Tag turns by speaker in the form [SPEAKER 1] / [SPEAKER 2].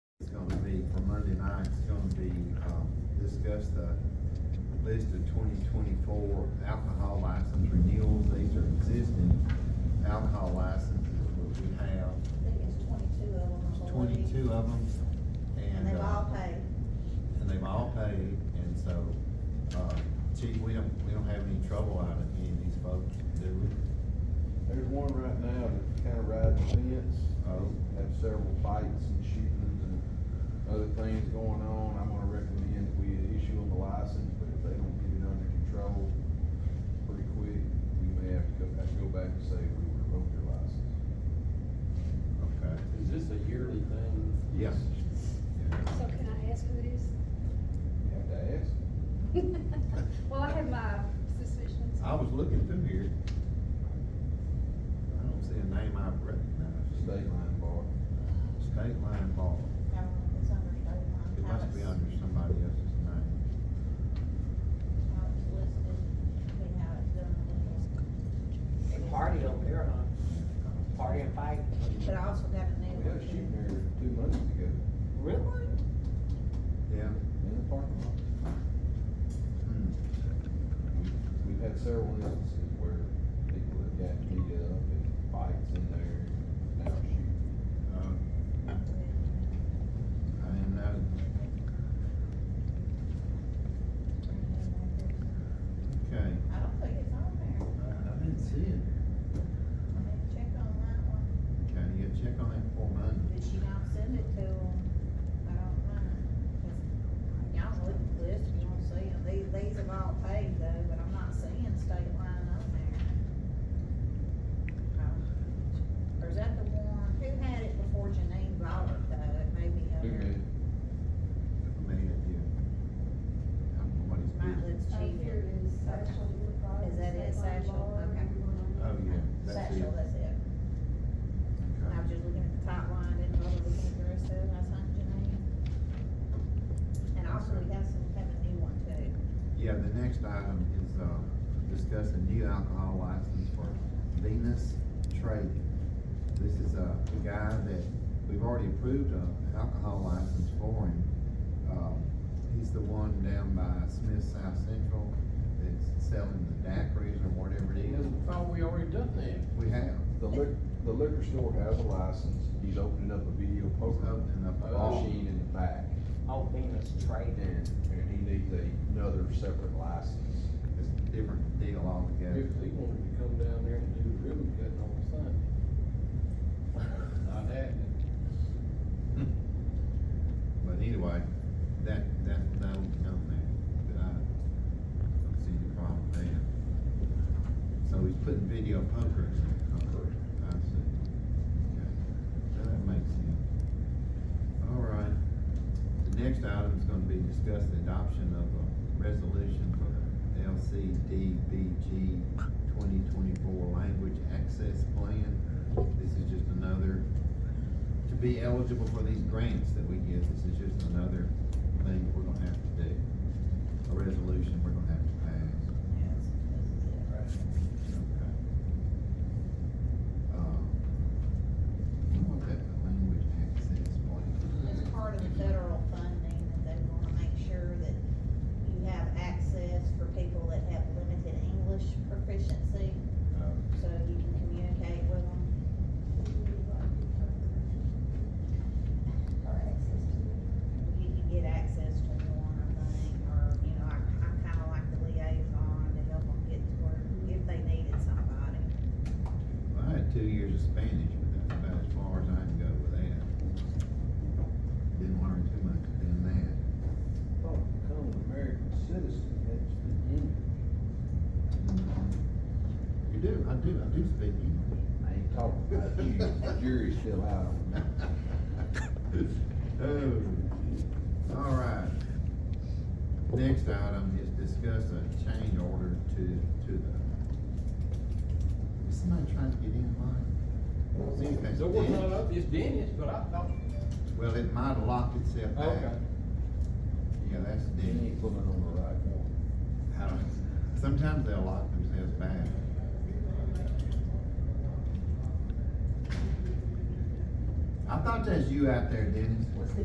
[SPEAKER 1] um, discuss the list of twenty twenty-four alcohol license renewals. These are existing alcohol licenses that we have.
[SPEAKER 2] I think
[SPEAKER 1] There's
[SPEAKER 2] it's twenty-two of them. I believe.
[SPEAKER 1] twenty-two of them.
[SPEAKER 2] And they've
[SPEAKER 1] uh,
[SPEAKER 2] all paid.
[SPEAKER 1] And they've all paid, and so, uh, chief, we don't, we don't have any trouble out of any of these folks, do we?
[SPEAKER 3] There's one right now that kinda rides the fence.
[SPEAKER 1] Oh.
[SPEAKER 3] Have several fights and shootings and other things going on. I'm gonna recommend that we issue them a license, but if they don't get it under control pretty quick, we may have to go, have to go back and say we revoked your license.
[SPEAKER 1] Okay.
[SPEAKER 4] Is this a yearly thing?
[SPEAKER 1] Yes.
[SPEAKER 5] So can I ask who it is?
[SPEAKER 3] You have to ask.
[SPEAKER 5] Well, I have my suspicions.
[SPEAKER 1] I was looking through here. I don't see a name I recognize.
[SPEAKER 3] State line bar.
[SPEAKER 1] State Line Bar.
[SPEAKER 2] No, it's under state line.
[SPEAKER 1] It must be
[SPEAKER 2] How it's-
[SPEAKER 1] under somebody else's name.
[SPEAKER 2] how it's listed, and how it's done.
[SPEAKER 6] They party over there, huh? Party and fight.
[SPEAKER 2] But I also got a
[SPEAKER 3] We
[SPEAKER 2] new
[SPEAKER 3] had a shooting
[SPEAKER 2] one.
[SPEAKER 3] there two months ago
[SPEAKER 6] Really?
[SPEAKER 1] Yeah.
[SPEAKER 3] in the parking lot.
[SPEAKER 1] Hmm.
[SPEAKER 3] We've- We've had several instances where people have got beat up and fights in there, now shoot.
[SPEAKER 1] Uh, I didn't know. Okay.
[SPEAKER 2] I don't think it's on there.
[SPEAKER 1] I I didn't see it.
[SPEAKER 2] I need to check on that one.
[SPEAKER 1] Okay, you gotta check on that for Monday.
[SPEAKER 2] Did she not send it to them? I don't know. you Y'all look at the list, if you don't see them. These, these have all paid though, but I'm not seeing state line on there. Oh. Or is that the one, who had it before Janine bought it though? It may be under,
[SPEAKER 3] Who knew?
[SPEAKER 1] Made it, yeah. I don't know what it's
[SPEAKER 2] might
[SPEAKER 1] doing.
[SPEAKER 2] let's
[SPEAKER 5] Oh,
[SPEAKER 2] check.
[SPEAKER 5] here it is, Satchel, your product,
[SPEAKER 2] Is that it,
[SPEAKER 5] Satchel
[SPEAKER 2] Satchel?
[SPEAKER 5] Bar,
[SPEAKER 2] Okay.
[SPEAKER 5] everyone.
[SPEAKER 1] Oh, yeah, that's it.
[SPEAKER 2] Satchel, that's it. I was
[SPEAKER 1] Okay.
[SPEAKER 2] just looking at the top line, didn't bother looking at the rest of it, I signed Janine. And also, we have some, have a new one too.
[SPEAKER 1] Yeah, the next item is, uh, discuss a new alcohol license for Venus Trading. This is a guy that, we've already approved an alcohol license for him. Um, he's the one down by Smith South Central that's selling the daiquiris or whatever it is.
[SPEAKER 4] I thought we already done that.
[SPEAKER 1] We have,
[SPEAKER 3] The liquor, the liquor store has a license, he's opening up a video
[SPEAKER 1] he's
[SPEAKER 3] poker
[SPEAKER 1] opening up a bar.
[SPEAKER 3] machine in the back.
[SPEAKER 6] Oh, Venus trading.
[SPEAKER 3] And, and he needs a- another separate license.
[SPEAKER 1] It's a different deal altogether.
[SPEAKER 4] If they wanted to come down there and do ribbon cutting on Sunday. Not happening.
[SPEAKER 1] But anyway, that, that, that'll be on there, but I don't see any problem there. So he's putting video poker in there.
[SPEAKER 3] Correct.
[SPEAKER 1] I see. Okay, Now that makes sense. All right, the next item is gonna be discuss the adoption of a resolution for the LCDBG twenty twenty-four language access plan. This is just another to be eligible for these grants that we get, this is just another thing that we're gonna have to do. A resolution we're gonna have to pass.
[SPEAKER 2] Yes, this is it right here.
[SPEAKER 1] Okay. Um, What was that, the language access plan?
[SPEAKER 2] It's part of the federal funding that they wanna make sure that you have access for people that have limited English proficiency,
[SPEAKER 1] Uh,
[SPEAKER 2] so you can communicate with them. You can get access to one, I think, or, you know, I, I'm kinda like the liaison to help them get to where, if they needed somebody.
[SPEAKER 1] I had two years of Spanish, but that's about as far as I can go with that. Didn't learn too much in that.
[SPEAKER 3] Thought to become an Oh, American citizen, had to speak English.
[SPEAKER 1] You do, I do, I do speak English.
[SPEAKER 3] I ain't talking about you, the jury's still out on that.
[SPEAKER 1] Oh, all right. Next item is discuss a change order to, to the, is somebody trying to get in line? Seems that's
[SPEAKER 4] So we're not
[SPEAKER 1] Dennis.
[SPEAKER 4] up, it's Dennis, but I thought.
[SPEAKER 1] Well, it might have locked itself back.
[SPEAKER 4] Okay.
[SPEAKER 1] Yeah, that's
[SPEAKER 3] You
[SPEAKER 1] dead.
[SPEAKER 3] ain't pulling on the right one.
[SPEAKER 1] I don't, sometimes they'll lock themselves back. I thought that's you out there, Dennis.